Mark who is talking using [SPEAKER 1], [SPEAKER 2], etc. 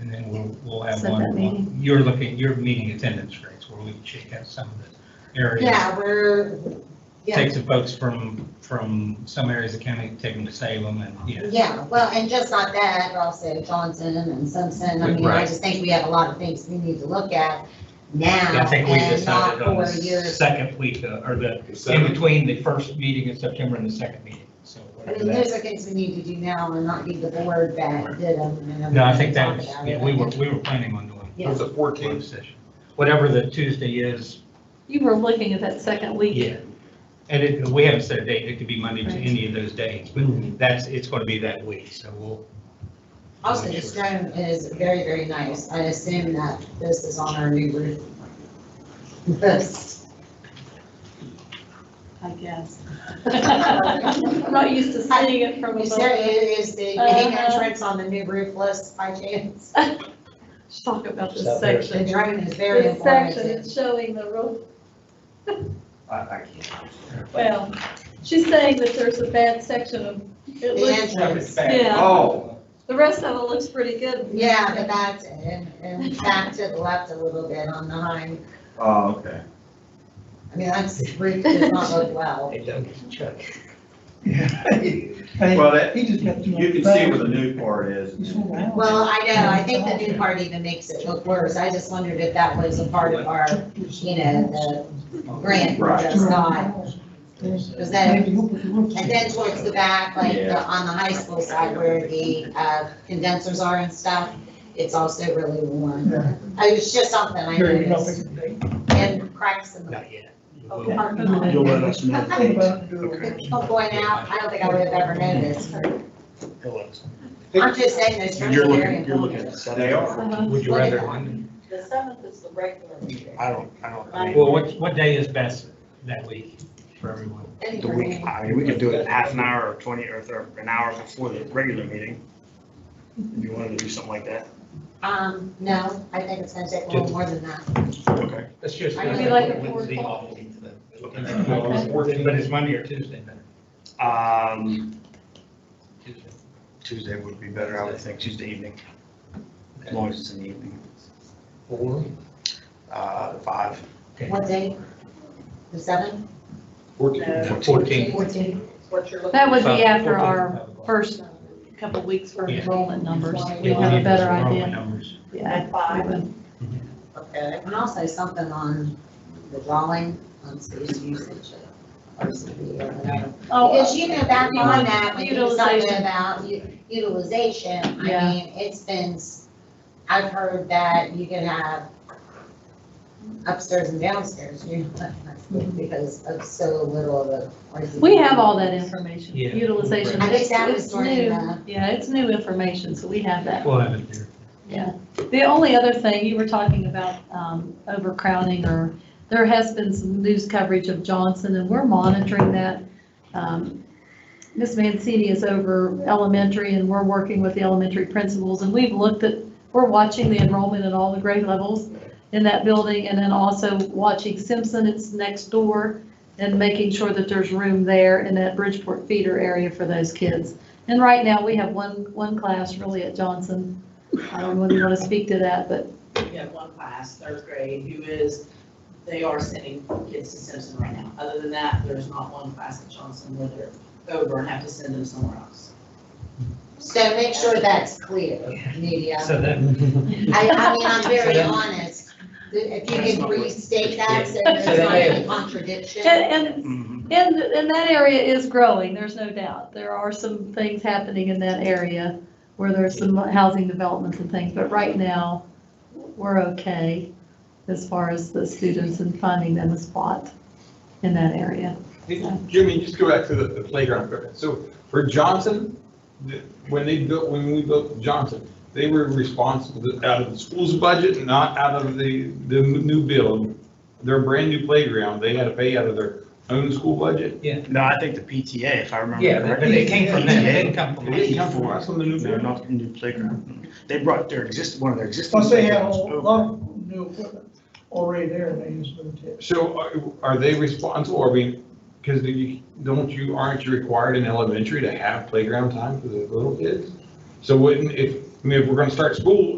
[SPEAKER 1] and we'll, we'll have
[SPEAKER 2] Set that meeting.
[SPEAKER 1] one. You're looking, you're meeting attendance rates where we check out some of the areas.
[SPEAKER 3] Yeah, we're, yeah,
[SPEAKER 1] Take some folks from, from some areas of the county, take them to Salem and, yeah.
[SPEAKER 3] yeah, well, and just not that, but also Johnson and Simpson, I mean, I
[SPEAKER 1] Right.
[SPEAKER 3] just think we have a lot of things we need to look at
[SPEAKER 1] I
[SPEAKER 3] now
[SPEAKER 1] think we
[SPEAKER 3] and not
[SPEAKER 1] decided on
[SPEAKER 3] four
[SPEAKER 1] the
[SPEAKER 3] years.
[SPEAKER 1] second week uh, or the, in
[SPEAKER 4] Seven.
[SPEAKER 1] between the first meeting in September and the second meeting, so.
[SPEAKER 3] I
[SPEAKER 1] whatever
[SPEAKER 3] mean,
[SPEAKER 1] that-
[SPEAKER 3] those are things we need to do now and not be the board that did them. and
[SPEAKER 1] No, I think that
[SPEAKER 3] everybody
[SPEAKER 1] was,
[SPEAKER 3] talked about
[SPEAKER 1] yeah,
[SPEAKER 3] it.
[SPEAKER 1] we were, we were planning on doing
[SPEAKER 3] Yeah.
[SPEAKER 4] There's a
[SPEAKER 1] closed
[SPEAKER 4] fourteenth,
[SPEAKER 1] session. Whatever the Tuesday is,
[SPEAKER 2] You were looking at that second week.
[SPEAKER 1] yeah. And it, we haven't set a date, it could be Monday to any of those days, but that's, it's going to be that week, so we'll.
[SPEAKER 3] Also, the stone is very, very nice. I assume that this is on our new roof. This.
[SPEAKER 2] I guess. I'm not used to seeing it from
[SPEAKER 3] Is there,
[SPEAKER 2] above.
[SPEAKER 3] is the main entrance on the new roof list by chance?
[SPEAKER 2] Let's Talk about this
[SPEAKER 5] Stop there.
[SPEAKER 3] The
[SPEAKER 2] section.
[SPEAKER 3] drone is very
[SPEAKER 2] This section
[SPEAKER 3] informative.
[SPEAKER 2] is showing the roof,
[SPEAKER 5] I, I can't.
[SPEAKER 2] well, she's saying that there's a bad section of, it
[SPEAKER 3] The
[SPEAKER 2] looks,
[SPEAKER 3] entrance.
[SPEAKER 2] yeah,
[SPEAKER 5] Oh,
[SPEAKER 2] the rest of it looks pretty good.
[SPEAKER 3] Yeah, but that's, and, and back to the left a little bit on the hind.
[SPEAKER 5] oh, okay.
[SPEAKER 3] I mean, that's, roof does not look well.
[SPEAKER 1] Hey, Doug, it's Chuck.
[SPEAKER 5] Well, that, you
[SPEAKER 6] just got too much
[SPEAKER 5] can see where the new part is.
[SPEAKER 3] Well, I know, I think the new part even makes it look worse. I just wondered if that was a part of our, you know, the grant we
[SPEAKER 5] Right.
[SPEAKER 3] just got. Was that And then towards the back, like the-
[SPEAKER 5] Yeah.
[SPEAKER 3] on the high school side where the uh, condensers are and stuff, it's also really warm. I- It's just something I noticed and cracks in the
[SPEAKER 1] Not yet.
[SPEAKER 3] whole
[SPEAKER 1] We'll-
[SPEAKER 3] parking lot.
[SPEAKER 2] You'll let
[SPEAKER 6] us
[SPEAKER 3] Oh, Going out, I don't think I would have ever noticed.
[SPEAKER 1] we'll ask.
[SPEAKER 3] I'm just saying those terms are very important.
[SPEAKER 5] They are.
[SPEAKER 1] Would you rather, Monday?
[SPEAKER 7] The seventh is the regular meeting.
[SPEAKER 8] I don't, I don't. I mean,
[SPEAKER 1] well, what, what day is best that week for everyone?
[SPEAKER 3] Any
[SPEAKER 8] The week,
[SPEAKER 3] grant.
[SPEAKER 8] I mean, we could do it half an hour or twenty or thir- an hour before the regular meeting. If you wanted to do something like that.
[SPEAKER 3] Um, no, I think it's gonna take a little more than that.
[SPEAKER 8] Okay.
[SPEAKER 1] Let's just.
[SPEAKER 3] I'd
[SPEAKER 2] be like at four
[SPEAKER 1] Wednesday
[SPEAKER 2] o'clock.
[SPEAKER 1] off.
[SPEAKER 2] Okay.
[SPEAKER 1] But is Monday or Tuesday better?
[SPEAKER 8] Um,
[SPEAKER 1] Tuesday.
[SPEAKER 8] Tuesday would be better, I would think, Tuesday evening, as long as it's in the evening,
[SPEAKER 1] Four?
[SPEAKER 8] uh, five.
[SPEAKER 1] Okay.
[SPEAKER 3] What day? The seventh,
[SPEAKER 4] fourteenth.
[SPEAKER 1] Fourteen.
[SPEAKER 3] fourteen?
[SPEAKER 7] What you're looking
[SPEAKER 2] That would be after
[SPEAKER 1] 14,
[SPEAKER 2] our
[SPEAKER 1] five o'clock.
[SPEAKER 2] first couple weeks for
[SPEAKER 1] Yeah.
[SPEAKER 2] enrollment numbers.
[SPEAKER 7] Yeah,
[SPEAKER 2] We'd have a better idea.
[SPEAKER 1] Numbers.
[SPEAKER 2] Yeah.
[SPEAKER 7] At five.
[SPEAKER 3] Okay. And also something on the drawing, on space usage. Or something, or whatever.
[SPEAKER 2] Oh,
[SPEAKER 3] Because you know, back on that, when you was talking
[SPEAKER 2] Utilization.
[SPEAKER 3] about u- utilization, I
[SPEAKER 2] Yeah.
[SPEAKER 3] mean, it's been, s- I've heard that you can have upstairs and downstairs, you know, because of so little of a. or is it-
[SPEAKER 2] we have all that information,
[SPEAKER 1] Yeah.
[SPEAKER 2] utilization.
[SPEAKER 3] I think that
[SPEAKER 2] It's-
[SPEAKER 3] was
[SPEAKER 2] it's
[SPEAKER 3] during
[SPEAKER 2] new.
[SPEAKER 3] the-
[SPEAKER 2] Yeah, it's new information, so we have that.
[SPEAKER 1] We'll have it there.
[SPEAKER 2] The only other thing, you were talking about um, overcrowding, or there has been some news coverage of Johnson, and we're monitoring that. Um, Ms. Mancini is over elementary, and we're working with the elementary principals, and we've looked at, we're watching the enrollment at all the grade levels in that building, and then also watching Simpson, it's next door, and making sure that there's room there in that Bridgeport feeder area for those kids. And right now, we have one, one class really at Johnson I don't know if you want to speak to that, but
[SPEAKER 7] We have one class, third grade, who is, they are sending kids to Simpson right now. Other than that, there's not one class at Johnson where they're over and have to send them somewhere else.
[SPEAKER 3] So make sure that's clear, media.
[SPEAKER 1] So that,
[SPEAKER 3] I, I mean, I'm very
[SPEAKER 1] So then-
[SPEAKER 3] honest. If you
[SPEAKER 8] That's
[SPEAKER 3] can
[SPEAKER 8] not what-
[SPEAKER 3] restate that, so
[SPEAKER 2] Yeah.
[SPEAKER 3] there's
[SPEAKER 1] So
[SPEAKER 3] not
[SPEAKER 1] then-
[SPEAKER 3] any contradiction.
[SPEAKER 2] and,
[SPEAKER 1] Mm-hmm.
[SPEAKER 8] Mhm.
[SPEAKER 2] and, and, and that area is growing, there's no doubt. There are some things happening in that area where there's some housing developments and things, but right now, we're okay as far as the students and finding them a spot in that area.
[SPEAKER 4] Jimmy, just go back to the, the playground equipment. So for Johnson, the- when they built, when we built Johnson, they were responsible out of the school's budget, not out of the, the new build. Their brand new playground, they had to pay out of their own school budget.
[SPEAKER 8] No, I think the PTA, if I remember.
[SPEAKER 1] yeah, but
[SPEAKER 8] correctly.
[SPEAKER 1] they came from them, they didn't come
[SPEAKER 4] It
[SPEAKER 1] from us.
[SPEAKER 4] didn't come from us on the new
[SPEAKER 8] No,
[SPEAKER 4] build.
[SPEAKER 8] not the new playground. They brought their exist, one of their existing.
[SPEAKER 6] Plus they have a
[SPEAKER 8] playgrounds over.
[SPEAKER 6] lot of new equipment already there, and they just moved it.
[SPEAKER 4] So are, are they responsible, I mean, because you, don't you, aren't you required in elementary to have playground time for the little kids? So wouldn't, if, I mean, if we're gonna start school,